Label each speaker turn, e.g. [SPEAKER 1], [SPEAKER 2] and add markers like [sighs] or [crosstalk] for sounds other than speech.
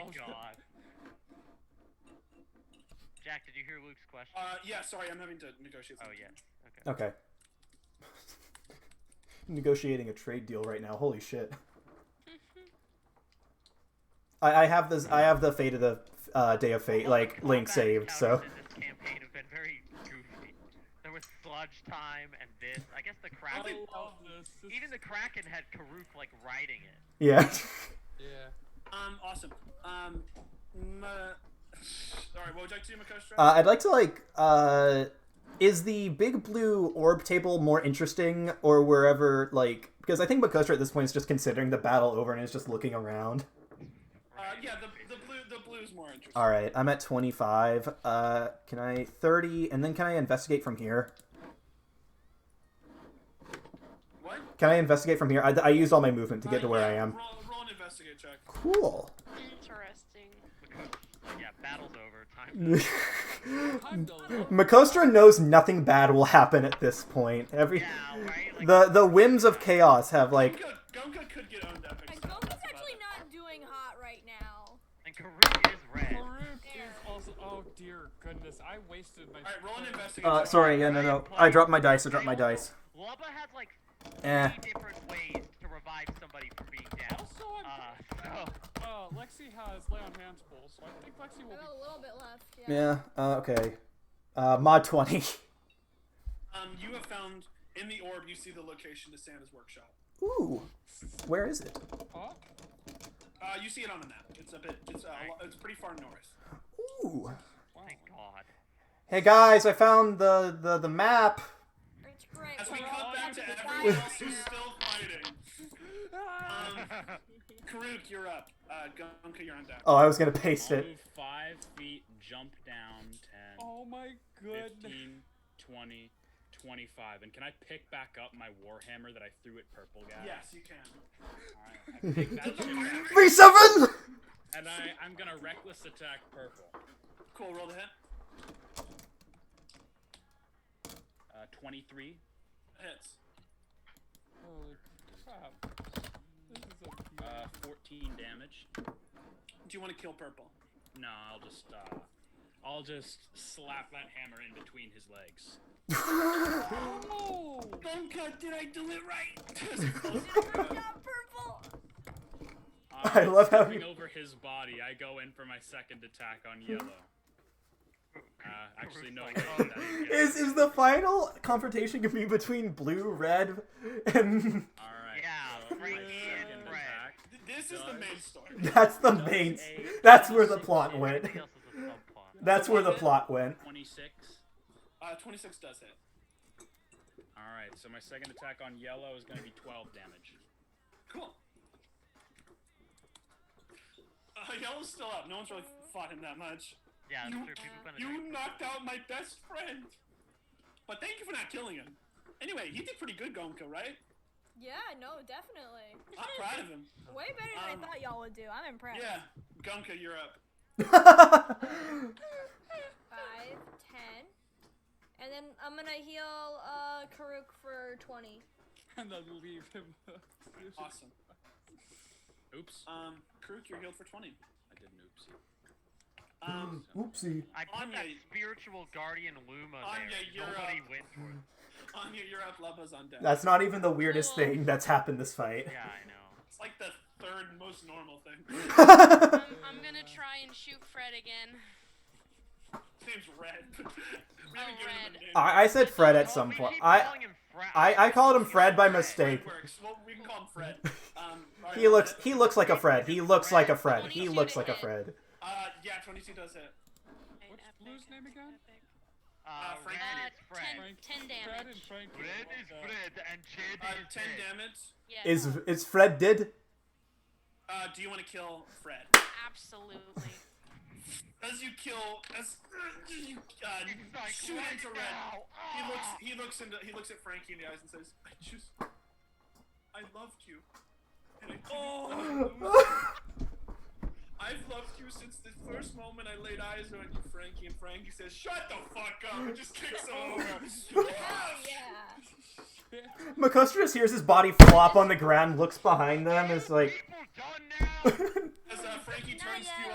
[SPEAKER 1] Oh,
[SPEAKER 2] [laughs] Jack, did you hear Luke's question?
[SPEAKER 3] Uh, yeah, sorry, I'm having to negotiate.
[SPEAKER 2] oh
[SPEAKER 3] something.
[SPEAKER 2] yeah. Okay.
[SPEAKER 4] Okay. [laughs] Negotiating a trade deal right now. Holy shit. I, I have this. I have the fate of the uh, day of fate,
[SPEAKER 2] All [laughs]
[SPEAKER 4] like
[SPEAKER 2] the
[SPEAKER 4] link
[SPEAKER 2] combat
[SPEAKER 4] saved. So
[SPEAKER 2] encounters in this campaign have been very goofy. There was sludge time and this. I guess the
[SPEAKER 3] I
[SPEAKER 1] Oh,
[SPEAKER 2] kraken.
[SPEAKER 3] love
[SPEAKER 1] this.
[SPEAKER 2] Even the kraken had Karuk like riding it.
[SPEAKER 4] [laughs] yeah.
[SPEAKER 1] Yeah.
[SPEAKER 3] Um, awesome. Um, m- uh, [sighs] sorry, what would you like to do, Makostra?
[SPEAKER 4] Uh, I'd like to like. Uh, is the big blue orb table more interesting, or wherever like? Because I think Makostra at this point is just considering the battle over and is just looking around.
[SPEAKER 3] Uh,
[SPEAKER 2] Right?
[SPEAKER 3] yeah, the, the blue the blue's more interesting.
[SPEAKER 4] All right, I'm at 25. Uh, can I 30, and then can I investigate from here?
[SPEAKER 3] What?
[SPEAKER 4] Can I investigate from here? I, I used all my movement to get
[SPEAKER 3] Uh,
[SPEAKER 4] to where
[SPEAKER 3] yeah,
[SPEAKER 4] I am.
[SPEAKER 3] Roll, roll an investigate check.
[SPEAKER 4] Cool.
[SPEAKER 5] Interesting.
[SPEAKER 2] Because- yeah, battle's over. Time.
[SPEAKER 1] I'm the
[SPEAKER 4] [laughs]
[SPEAKER 1] love.
[SPEAKER 4] Makostra knows nothing bad will happen at this point. [laughs] Every
[SPEAKER 2] yeah, right. Like,
[SPEAKER 4] the the whims of chaos have like
[SPEAKER 3] Gunka, Gunka could get owned up.
[SPEAKER 6] And Goku's Uh, actually not doing hot right now.
[SPEAKER 2] and Karuk is red.
[SPEAKER 1] Farouk is also. Oh dear goodness! I wasted my.
[SPEAKER 3] Alright, roll an investigate
[SPEAKER 4] uh
[SPEAKER 3] check.
[SPEAKER 4] sorry, yeah, no no. I dropped my dice, I dropped my dice.
[SPEAKER 2] Lubba has like
[SPEAKER 4] Eh.
[SPEAKER 2] three different ways to revive somebody from being down.
[SPEAKER 1] Also, I'm.
[SPEAKER 2] Uh, [laughs] so
[SPEAKER 1] Uh, Lexi has lay on hands full, so I think Lexi
[SPEAKER 6] I've
[SPEAKER 1] will
[SPEAKER 6] got a little bit left. Yeah.
[SPEAKER 4] Yeah, uh, okay. Uh mod 20.
[SPEAKER 3] Um, you have found in the orb. You see the location to Santa's workshop.
[SPEAKER 4] Ooh. Where is it?
[SPEAKER 1] be. Huh?
[SPEAKER 3] Uh, you see it on the map. It's a bit. It's uh, lo- it's pretty far north.
[SPEAKER 4] Ooh.
[SPEAKER 1] Wow.
[SPEAKER 2] thank God.
[SPEAKER 4] Hey guys, I found the the, the map.
[SPEAKER 6] It's great.
[SPEAKER 3] As we
[SPEAKER 6] We're
[SPEAKER 3] cut
[SPEAKER 6] all
[SPEAKER 3] back
[SPEAKER 6] at
[SPEAKER 3] to
[SPEAKER 6] the
[SPEAKER 3] everyone
[SPEAKER 6] fire
[SPEAKER 3] else who's
[SPEAKER 6] [laughs]
[SPEAKER 3] still fighting,
[SPEAKER 1] Ah!
[SPEAKER 3] um,
[SPEAKER 2] [laughs]
[SPEAKER 3] Karuk, you're up. Uh, Gunka, you're on deck.
[SPEAKER 4] Oh, I was going to paste
[SPEAKER 7] I'll
[SPEAKER 4] it. [laughs]
[SPEAKER 7] move five feet, jump down 10,
[SPEAKER 1] Oh my goodness.
[SPEAKER 7] 15, 20, 25. And can I pick back up my Warhammer that I threw at Purple Guy?
[SPEAKER 3] Yes, you can.
[SPEAKER 7] Alright, I pick that shit up,
[SPEAKER 4] V7.
[SPEAKER 7] and I, I'm gonna reckless attack Purple.
[SPEAKER 3] Cool. Roll the hit.
[SPEAKER 7] Uh, 23.
[SPEAKER 3] Hits.
[SPEAKER 1] Holy crap. This is a
[SPEAKER 7] Uh, 14 damage.
[SPEAKER 3] Do you want to kill purple?
[SPEAKER 7] No, I'll just, uh, I'll just slap that hammer in between his legs.
[SPEAKER 1] Oh!
[SPEAKER 3] Gunka, did I do it right?
[SPEAKER 6] Good job, purple.
[SPEAKER 7] Uh,
[SPEAKER 4] [laughs] I love how
[SPEAKER 7] stepping
[SPEAKER 4] you-
[SPEAKER 7] over his body, I go in for my second attack on yellow. Uh, actually, no.
[SPEAKER 2] Like,
[SPEAKER 7] wait,
[SPEAKER 2] oh,
[SPEAKER 7] that
[SPEAKER 4] Is is the final confrontation gonna be between blue, red, and [laughs]
[SPEAKER 7] All right.
[SPEAKER 2] Yeah,
[SPEAKER 7] so my
[SPEAKER 2] Frank
[SPEAKER 1] and
[SPEAKER 7] second
[SPEAKER 2] Fred.
[SPEAKER 7] attack.
[SPEAKER 3] [laughs] this is the main story.
[SPEAKER 4] that's the main. That's where the plot went. [laughs]
[SPEAKER 2] Everything else is a subplot.
[SPEAKER 4] That's where the plot went.
[SPEAKER 7] 26.
[SPEAKER 3] Uh, 26 does hit.
[SPEAKER 7] All right, so my second attack on yellow is going to be 12 damage.
[SPEAKER 3] Cool. Uh, Yellow's still up. No one's really fought him that much.
[SPEAKER 2] Yeah,
[SPEAKER 3] You-
[SPEAKER 2] it's true. People kind of.
[SPEAKER 3] You knocked out my best friend. But thank you for not killing him. Anyway, he did pretty good, Gonka, right?
[SPEAKER 6] Yeah, no, definitely.
[SPEAKER 3] I'm proud of [laughs] him.
[SPEAKER 6] Way better than
[SPEAKER 3] Um,
[SPEAKER 6] I thought y'all would do. I'm impressed.
[SPEAKER 3] Yeah, Gonka, you're up.
[SPEAKER 4] [laughs]
[SPEAKER 6] Five, ten. And then I'm gonna heal uh Karuk for twenty.
[SPEAKER 1] [laughs] And then leave him.
[SPEAKER 3] Awesome.
[SPEAKER 7] Oops.
[SPEAKER 3] Um, Karuk, you're healed for 20.
[SPEAKER 7] I did an oopsie.
[SPEAKER 3] Um,
[SPEAKER 4] Oopsie.
[SPEAKER 2] I put that
[SPEAKER 3] Anya-
[SPEAKER 2] spiritual guardian Luma
[SPEAKER 3] Anya,
[SPEAKER 2] there.
[SPEAKER 3] you're
[SPEAKER 2] Nobody
[SPEAKER 3] up.
[SPEAKER 2] went for it.
[SPEAKER 3] Anya, you're up. Lava's on deck.
[SPEAKER 4] That's not even the weirdest thing that's happened this fight.
[SPEAKER 2] Yeah, I know.
[SPEAKER 3] It's like the third most normal thing.
[SPEAKER 4] [laughs]
[SPEAKER 5] I'm, I'm gonna try and shoot Fred again.
[SPEAKER 3] His name's Red. [laughs] we haven't
[SPEAKER 5] Oh,
[SPEAKER 3] given him
[SPEAKER 5] Red.
[SPEAKER 3] a name.
[SPEAKER 4] I, I said Fred [laughs] at
[SPEAKER 2] Well,
[SPEAKER 4] some
[SPEAKER 2] we
[SPEAKER 4] point.
[SPEAKER 2] keep
[SPEAKER 4] I
[SPEAKER 2] calling him Fred.
[SPEAKER 4] I I called him Fred by mistake.
[SPEAKER 3] Fred works. Well, we can call him
[SPEAKER 4] [laughs]
[SPEAKER 3] Fred. Um, alright,
[SPEAKER 4] He looks
[SPEAKER 3] Fred.
[SPEAKER 4] he looks like a Fred. He looks like a Fred. He looks like a Fred.
[SPEAKER 3] Uh, yeah, 22 does hit.
[SPEAKER 1] What's
[SPEAKER 5] Epic,
[SPEAKER 1] Blue's name
[SPEAKER 5] epic,
[SPEAKER 1] again?
[SPEAKER 5] epic.
[SPEAKER 2] Uh,
[SPEAKER 3] Frank-
[SPEAKER 2] Red
[SPEAKER 5] Uh,
[SPEAKER 2] is Fred.
[SPEAKER 1] Frank.
[SPEAKER 5] Ten
[SPEAKER 1] Fred and
[SPEAKER 5] damage.
[SPEAKER 1] Frank.
[SPEAKER 2] Red is Fred and Jed
[SPEAKER 3] Uh,
[SPEAKER 2] is
[SPEAKER 3] 10
[SPEAKER 2] dead.
[SPEAKER 3] damage.
[SPEAKER 5] Yeah.
[SPEAKER 4] Is is Fred dead? [laughs]
[SPEAKER 3] Uh, do you want to kill Fred?
[SPEAKER 5] absolutely.
[SPEAKER 3] As you kill, as you uh,
[SPEAKER 2] It's like,
[SPEAKER 3] shoot
[SPEAKER 2] right
[SPEAKER 3] into Red,
[SPEAKER 2] now.
[SPEAKER 3] he looks.
[SPEAKER 2] Ah!
[SPEAKER 3] He looks into. He looks at Frankie in the eyes and says, "I just, I loved you, and I couldn't let you lose. I've loved you since the first moment I laid eyes on you, Frankie." And Frankie says, "Shut the fuck up!" and just kicks him over.
[SPEAKER 6] Yeah.
[SPEAKER 4] Makostra just hears his body flop on the ground, looks behind them, and is like,
[SPEAKER 2] People done now.
[SPEAKER 3] As uh, Frankie turns to you